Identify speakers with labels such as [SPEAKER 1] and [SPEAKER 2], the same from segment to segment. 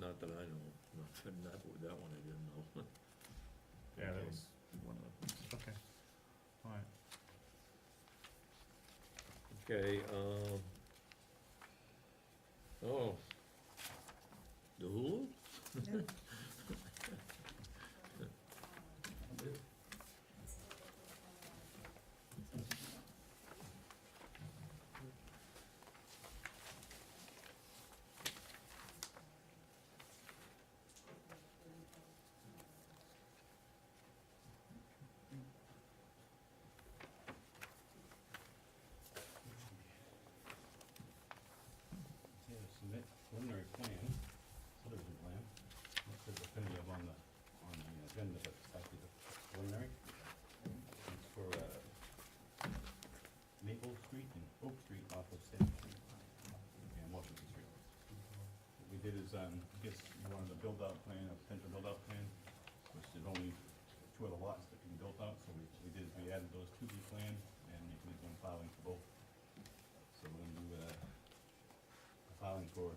[SPEAKER 1] Couldn't, that, that one I didn't know.
[SPEAKER 2] Yeah, that
[SPEAKER 1] Okay.
[SPEAKER 2] was,
[SPEAKER 1] One of the-
[SPEAKER 2] okay. All right,
[SPEAKER 1] Okay, um, oh, the Hulu?
[SPEAKER 3] Yeah, submit preliminary plan, subdivision plan, not the definitive on the, on the agenda, but it's actually the preliminary. It's for, uh, Maple Street and Oak Street off of State Street and Washington Street. What we did is, um, I guess you wanted a build-out plan, a potential build-out plan, which there's only two other lots that can be built out, so we, we did, we added those to the plan and you can make one filing for both. So we're gonna do, uh, a filing for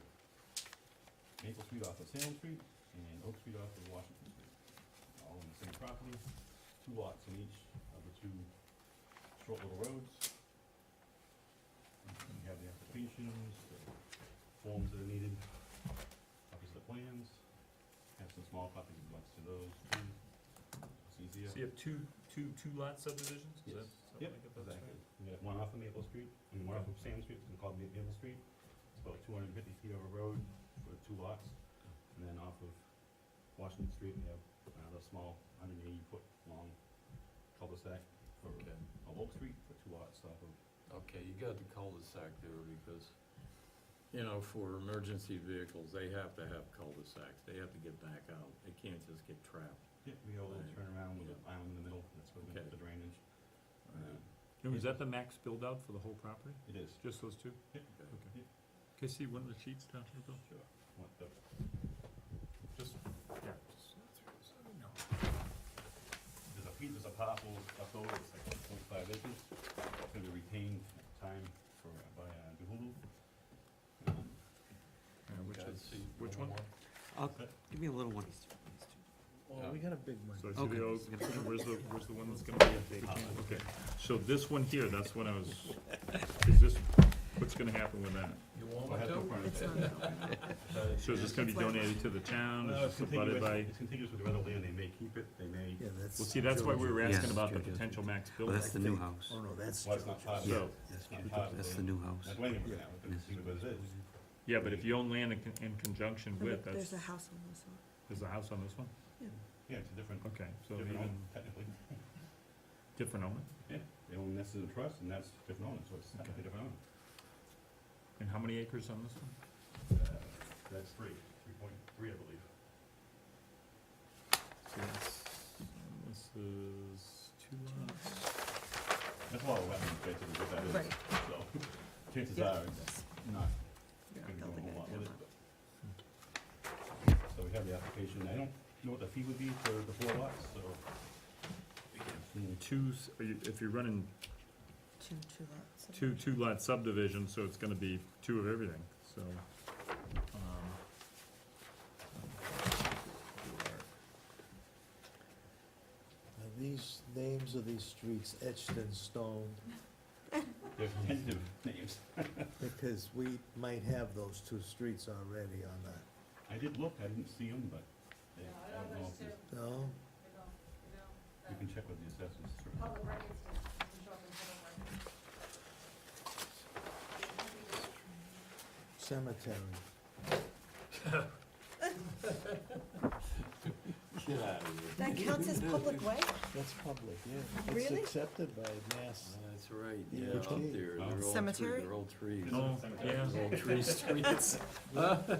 [SPEAKER 3] Maple Street off of Salem Street and Oak Street off of Washington Street. All on the same property, two lots in each of the two short little roads. You have the applications, the forms that are needed, copies of the plans, have some small copies of lots to those, too. It's easier.
[SPEAKER 2] so you have two, two, two lot subdivisions, is
[SPEAKER 3] Yes.
[SPEAKER 2] that, is that what I
[SPEAKER 3] Yep,
[SPEAKER 2] get that's
[SPEAKER 3] exactly.
[SPEAKER 2] right?
[SPEAKER 3] We got one off of Maple Street and one off of Sam Street, it's called Ma- Maple Street. It's about two hundred and fifty feet over road for two lots. And then off of Washington Street, we have another small, hundred and eighty foot long cul-de-sac for
[SPEAKER 4] Okay,
[SPEAKER 3] of Oak Street for two lots off of,
[SPEAKER 4] okay, you got the cul-de-sac there because, you know, for emergency vehicles, they have to have cul-de-sacs. They have to get back out. They can't just get trapped.
[SPEAKER 3] yeah, we got a little
[SPEAKER 4] Right.
[SPEAKER 3] turnaround with an island in the middle, that's where we
[SPEAKER 4] Okay.
[SPEAKER 3] put the drainage. Uh,
[SPEAKER 2] And was that the max build out for the whole property,
[SPEAKER 3] It is,
[SPEAKER 2] just those two?
[SPEAKER 4] Okay.
[SPEAKER 2] Okay. Can I see one of the sheets down here, Bill?
[SPEAKER 3] sure. What the,
[SPEAKER 2] Just, yeah.
[SPEAKER 3] there's a piece, there's a parcel left over, it's like point five acres, it's gonna be retained at the time for, by, uh, DeHulu. Um,
[SPEAKER 2] Yeah, which
[SPEAKER 4] Okay,
[SPEAKER 2] is,
[SPEAKER 4] see
[SPEAKER 2] which one?
[SPEAKER 4] more?
[SPEAKER 5] Give me a little one.
[SPEAKER 4] Yeah.
[SPEAKER 1] we got a big one.
[SPEAKER 2] So I
[SPEAKER 5] Okay.
[SPEAKER 2] see the, oak, where's the, where's the one that's gonna be a big, okay, so this one here, that's when I was, is this, what's gonna happen with that?
[SPEAKER 4] You
[SPEAKER 3] Well, I
[SPEAKER 4] want
[SPEAKER 3] have no
[SPEAKER 4] to?
[SPEAKER 3] front of it.
[SPEAKER 2] So is this gonna be donated to the town,
[SPEAKER 3] Well,
[SPEAKER 2] is
[SPEAKER 3] it's
[SPEAKER 2] this abutted
[SPEAKER 3] contiguous,
[SPEAKER 2] by?
[SPEAKER 3] it's contiguous Uh, with the other land, they may keep it, they may,
[SPEAKER 6] Yeah, that's.
[SPEAKER 2] Well, see, that's why we were
[SPEAKER 5] Yes.
[SPEAKER 2] asking about the
[SPEAKER 4] Georgia.
[SPEAKER 2] potential max
[SPEAKER 5] Oh,
[SPEAKER 2] build.
[SPEAKER 5] that's the new house.
[SPEAKER 6] Oh, no, that's.
[SPEAKER 3] well, it's not part of
[SPEAKER 2] So,
[SPEAKER 3] it,
[SPEAKER 6] That's
[SPEAKER 3] it's not part of
[SPEAKER 5] That's the new
[SPEAKER 3] That's
[SPEAKER 5] house.
[SPEAKER 3] land right now, it's contiguous with it.
[SPEAKER 2] yeah, but if you own land in con- in conjunction with, that's,
[SPEAKER 7] There's a house on this one.
[SPEAKER 2] there's a house on this one?
[SPEAKER 3] yeah, it's a different,
[SPEAKER 2] Okay, so
[SPEAKER 3] different
[SPEAKER 2] even,
[SPEAKER 3] owner, technically,
[SPEAKER 2] different owner?
[SPEAKER 3] yeah, they own this as a trust, and that's different owner, so it's technically different owner.
[SPEAKER 2] And how many acres on this one?
[SPEAKER 3] Uh, That's three, three point three, I believe.
[SPEAKER 2] So that's, this is two lots.
[SPEAKER 3] That's a lot of wetland space that we put that in,
[SPEAKER 7] Right.
[SPEAKER 3] so chances
[SPEAKER 7] Yeah.
[SPEAKER 3] are it's not
[SPEAKER 7] Yeah,
[SPEAKER 3] gonna do
[SPEAKER 7] building
[SPEAKER 3] a whole lot
[SPEAKER 7] idea,
[SPEAKER 3] with it,
[SPEAKER 7] but-
[SPEAKER 3] but- So we have the application, I don't know what the fee would be for the four lots, so. Hmm,
[SPEAKER 2] Two, s- are you, if you're running
[SPEAKER 7] Two, two lots. of
[SPEAKER 2] two,
[SPEAKER 7] it.
[SPEAKER 2] two lot subdivision, so it's gonna be two of everything, so. um.
[SPEAKER 6] And these names of these streets etched in stone,
[SPEAKER 3] They're tentative names.
[SPEAKER 6] because we might have those two streets already on that,
[SPEAKER 3] I did look, I didn't see them, but they, I don't know if it's-
[SPEAKER 6] no?
[SPEAKER 3] you can check with the assessors. sure.
[SPEAKER 6] Cemetery,
[SPEAKER 4] Get out of here.
[SPEAKER 7] That counts as public way?
[SPEAKER 6] that's public, yeah.
[SPEAKER 7] Really?
[SPEAKER 6] It's accepted by mass.
[SPEAKER 4] That's right,
[SPEAKER 6] Yeah,
[SPEAKER 4] yeah,
[SPEAKER 6] which
[SPEAKER 4] up
[SPEAKER 6] tree?
[SPEAKER 4] there, they're all three,
[SPEAKER 7] Cemetery?
[SPEAKER 4] they're all trees.
[SPEAKER 2] Oh, yeah,
[SPEAKER 4] They're all tree streets.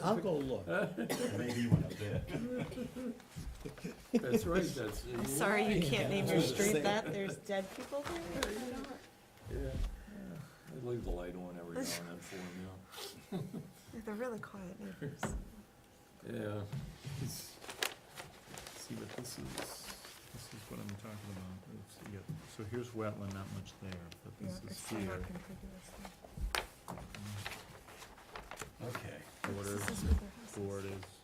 [SPEAKER 6] I'll go look.
[SPEAKER 3] There may be one up there.
[SPEAKER 4] That's right, that's.
[SPEAKER 7] I'm sorry you can't name your
[SPEAKER 4] Yeah.
[SPEAKER 7] street that, there's dead people there.
[SPEAKER 4] Yeah, I leave the light on every now and then for them, yeah.
[SPEAKER 7] They're really quiet neighbors.
[SPEAKER 4] Yeah. Let's See what this is.
[SPEAKER 2] this is what I'm talking about, Oops, yeah. so here's wetland, not much there, but
[SPEAKER 7] Yeah,
[SPEAKER 2] this
[SPEAKER 7] it's
[SPEAKER 2] is
[SPEAKER 7] somewhat
[SPEAKER 2] here.
[SPEAKER 7] contiguous there.
[SPEAKER 4] Okay.
[SPEAKER 2] Border, Mm.
[SPEAKER 7] This is where their house is.
[SPEAKER 2] board is.